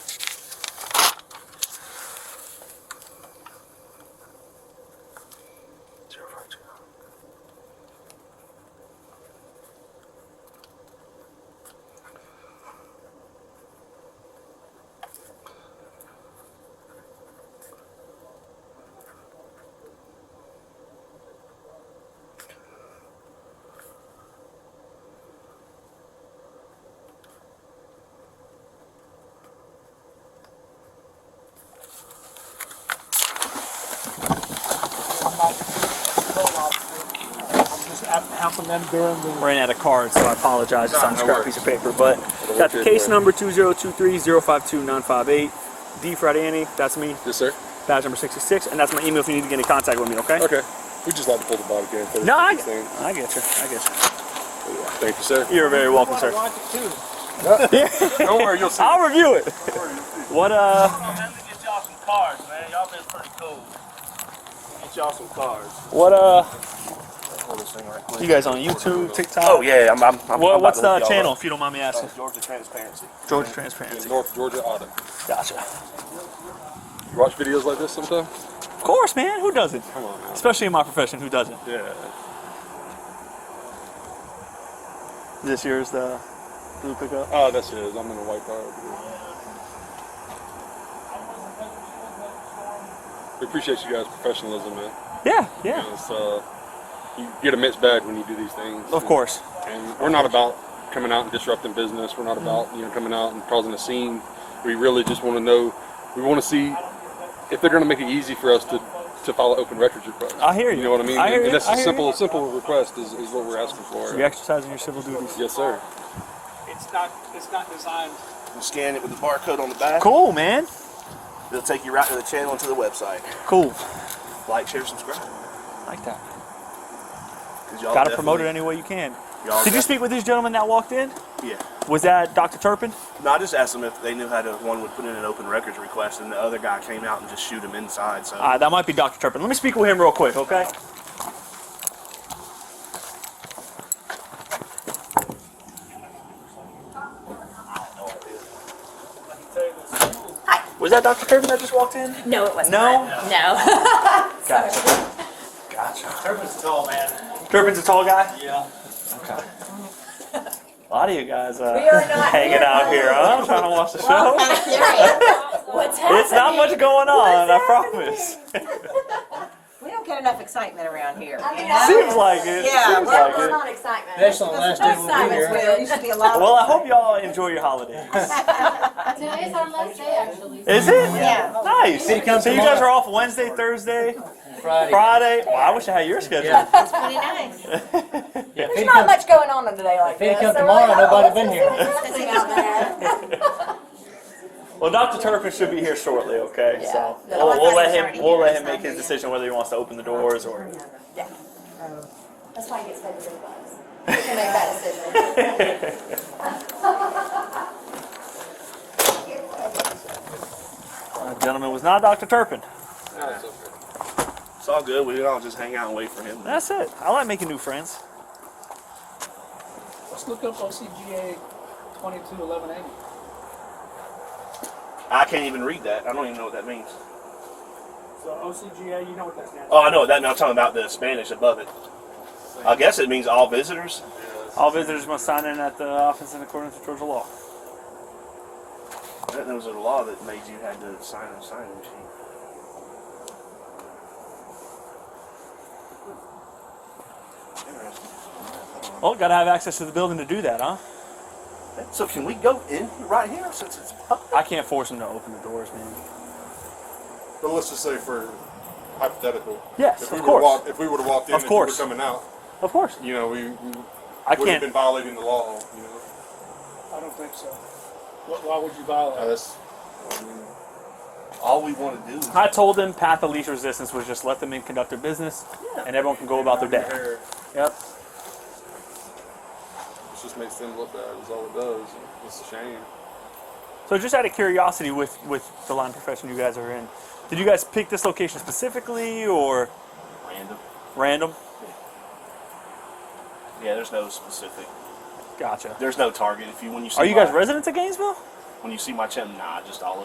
ran out of cards, so I apologize. It's on a No, no scrap worries. piece of paper, but It'll got the work case good. number 20230529528. D Fradiani, that's me, Yes, sir. badge number 66, and that's my email if you need to get in contact with me, okay? Okay. We just like to pull the bottle again. No, I, Thank I get you. I get thank you, sir. you. You're very welcome, sir. Don't worry, you'll see. I'll review it. What, uh, Hold on, man. Let me get y'all some cards, man. Y'all been pretty cool. Get y'all some cards. what, uh, Hold this thing right quick. you guys on YouTube, TikTok? Oh yeah, I'm. I'm, I'm What, I'm what's the about to look y'all channel, up. if you don't mind me asking? Uh, Georgia Transparency. Georgia In Transparency. North Georgia Auto. Gotcha. You watch videos like this sometimes? Of course, man. Who doesn't? Come on, man. Especially in my profession, who doesn't? Yeah. This year's the blue pickup. Oh, that's it. I'm in the white car. over here. We appreciate you guys' professionalism, man. Yeah, You, yeah. know, it's, uh, you get a mixed bag when you do these things. Of course. And we're not about coming out and disrupting business. We're not about you know coming out and causing a scene. We really just want to know. We want to see if they're going to make it easy for us to to file an open records request. I hear you. You know what I mean? I hear and you. that's I a hear simple simple request is, is what we're asking for. You're exercising your civil duties. Yes, sir. It's not, it's not designed. You scan it with the barcode on the back. Cool, man. It'll take you right to the channel and to the website. Cool. Like, share, subscribe. Like that. 'Cause y'all Got to promote it definitely- any way you can. Y'all Did you speak with this gentleman that walked in? Yeah. Was that Dr. Turpin? No, I just asked them if they knew how to. One would put in an open records request, and the other guy came out and just shoot him inside. So Uh, that might be Dr. Turpin. Let me speak with him real quick, okay? Was that Dr. Turpin that just walked in? No, it wasn't. No? her. No. Gotcha. Turpin's tall, man. Turpin's a tall guy? Yeah. A lot of you guys uh, We are not hanging here. out here. huh? I'm trying to watch the show. What's happening? It's not much going on, I promise. We don't get enough excitement around here. Seems like it. Yeah, Seems well, like it. not excitement. That's the last day we'll be here. There used to be a lot of. Well, I hope y'all enjoy your holiday. Today is our last day, actually. Is it? Yeah. Nice. So It you comes guys are off Wednesday, Thursday, Friday. Friday. Well, I wish I had your schedule. Yeah. It's pretty nice. Yeah, if There's he'd not come, much going on on today like if he'd this. come so we're tomorrow, like, oh, let's nobody been just here. see what's happening out there. Well, Dr. Turpin should be here shortly. Okay. So Yeah. we'll, we'll let Already him. We'll here, let him so- make his decision whether he wants to open the doors or. That's why he gets paid the big bucks. He can make that decision. Uh, gentleman was not Dr. Turpin. it's all good. We can all just hang out and wait for him. That's it. I like making new friends. let's look up OCGA 221180. I can't even read that. I don't even know what that means. So OCGA, you know what that's now. Oh, I know what that. Now I'm talking about the Spanish above it. I guess it means all visitors. All visitors must sign in at the office in accordance with Georgia law. I didn't know it was a law that made you had to sign a signing sheet. Interesting. Well, gotta have access to the building to do that, huh? So can we go in right here since it's public? I can't force him to open the doors, man. But let's just say for hypothetical. Yes, if we would've of course. walked- If we would've walked in Of and you were course. coming out, Of course. you know, we, we I would've can't. been violating the law, you know? I don't think so. Wh- Why would you Uh, violate? it? that's- I mean, All we want to do is I told them path of least resistance was just let them in, conduct their business, and everyone can go about their day. Yep. It just makes them look bad, is all it does. It's a shame. So just out of curiosity, with with the line profession you guys are in, did you guys pick this location specifically or random. random? Yeah, there's no specific. Gotcha. There's no target. If you when you see Are you guys my- residents of Gainesville? when you see my chin, nah, just all